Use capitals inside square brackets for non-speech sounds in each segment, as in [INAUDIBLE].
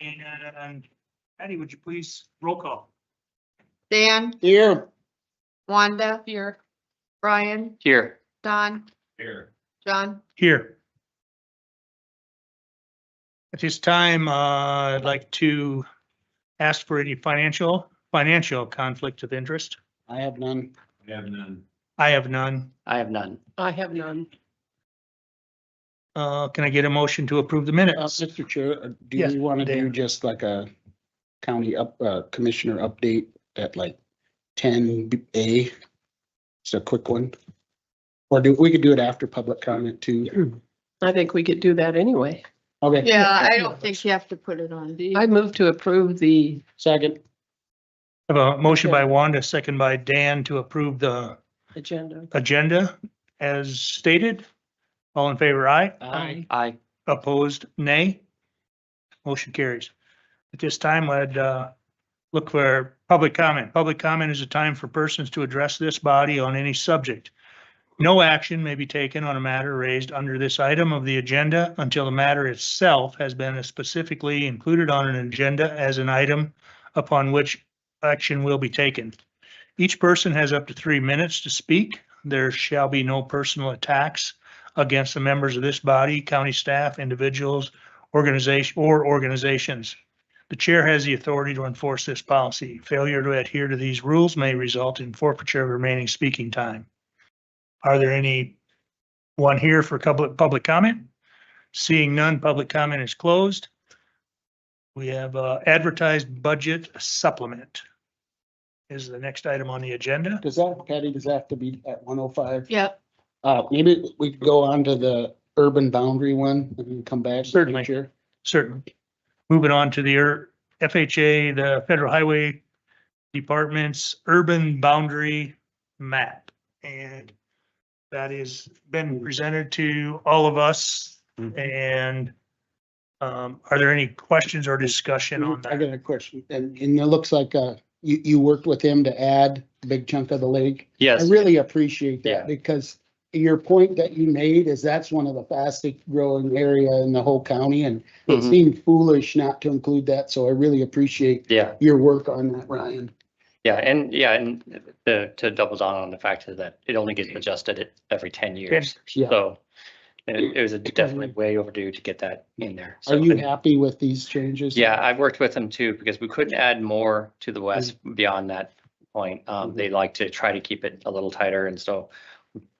And um, Patty, would you please roll call? Dan, Here. Wanda. Here. Brian, Here. Don, Here. John. Here. At this time, uh, I'd like to ask for any financial, financial conflict of interest. I have none. I have none. I have none. I have none. I have none. Uh, can I get a motion to approve the Uh, minutes? Mr. Chair, uh, do Yes, we want to do Dan. just like a county up, uh, commissioner update at like ten A? Just a quick one. Or do, we could do it after public comment too. [CLEARS THROAT] I think we could do that anyway. Okay, Yeah, I don't think you have to put it on. do you? I move to approve the, second. I Have a motion by Wanda, second by Dan to approve the agenda. agenda as stated. All in favor, aye. Aye. Aye. Opposed, nay. Motion carries. At this time, I'd uh, look for public comment. Public comment is a time for persons to address this body on any subject. No action may be taken on a matter raised under this item of the agenda until the matter itself has been specifically included on an agenda as an item upon which action will be taken. Each person has up to three minutes to speak. There shall be no personal attacks against the members of this body, county staff, individuals, organization, or organizations. The chair has the authority to enforce this policy. Failure to adhere to these rules may result in forfeiture of remaining speaking time. Are there any one here for public, public comment? Seeing none, public comment is closed. We have uh, advertised budget supplement is the next item on the agenda. Does that, Patty, does that have to be at one oh five? Yep, Uh, maybe we could go on to the urban boundary one and then come back. Mr. Certainly. Chair. Certainly. Moving on to the ur- FHA, the Federal Highway Department's urban boundary map. And that has been presented to all of us Mhm. and um, are there any questions or discussion on Mm-hmm. I that? got a question, and, and it looks like, uh, you, you worked with him to add a big chunk of the lake. I Yes, really appreciate Yeah. that, because your point that you made is that's one of the fastest growing area in the whole county, and it Mhm. seemed foolish not to include that, so I really appreciate yeah, your work on that, Ryan. yeah, and yeah, and to, to double down on the fact is that it only gets adjusted it every ten years. Yeah. So it, it was a definitely way overdue to get that in there. Are So- you happy with these changes? Yeah, I've worked with them too, because we couldn't add more to the west beyond that point. Um, Mhm. they like to try to keep it a little tighter, and so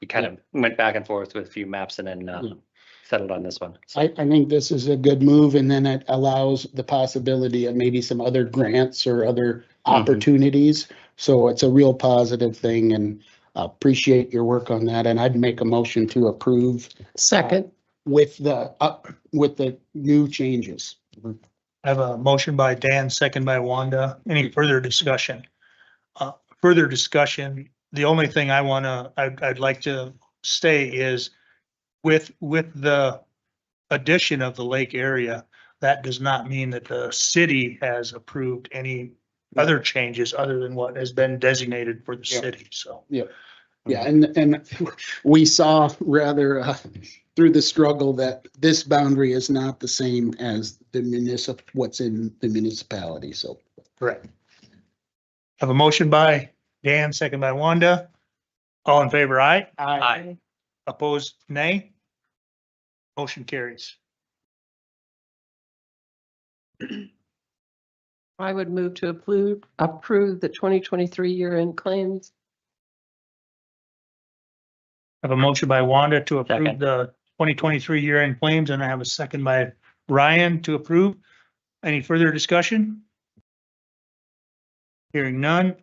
we kind of went back and forth with a few maps and then, uh, Yeah. settled on this one. So, I, I think this is a good move, and then it allows the possibility of maybe some other grants or other Mhm. opportunities. So it's a real positive thing, and appreciate your work on that, and I'd make a motion to approve Second, with the, up, with the new changes. I have a motion by Dan, second by Wanda. Any further discussion? Uh, Further discussion, the only thing I want to, I'd, I'd like to say is with, with the addition of the lake area, that does not mean that the city has approved any other changes other than what has been designated for the Yeah. city, so. Yeah, and, and we saw rather uh, through the struggle that this boundary is not the same as the municip, what's in the municipality, so. Correct. Have a motion by Dan, second by Wanda. All in favor, aye? Aye. Opposed, nay? Motion carries. I would move to approve, approve the 2023 year-end claims. I have a motion by Wanda to approve Second. the twenty twenty-three year-end claims, and I have a second by Ryan to approve. Any further discussion? Hearing none,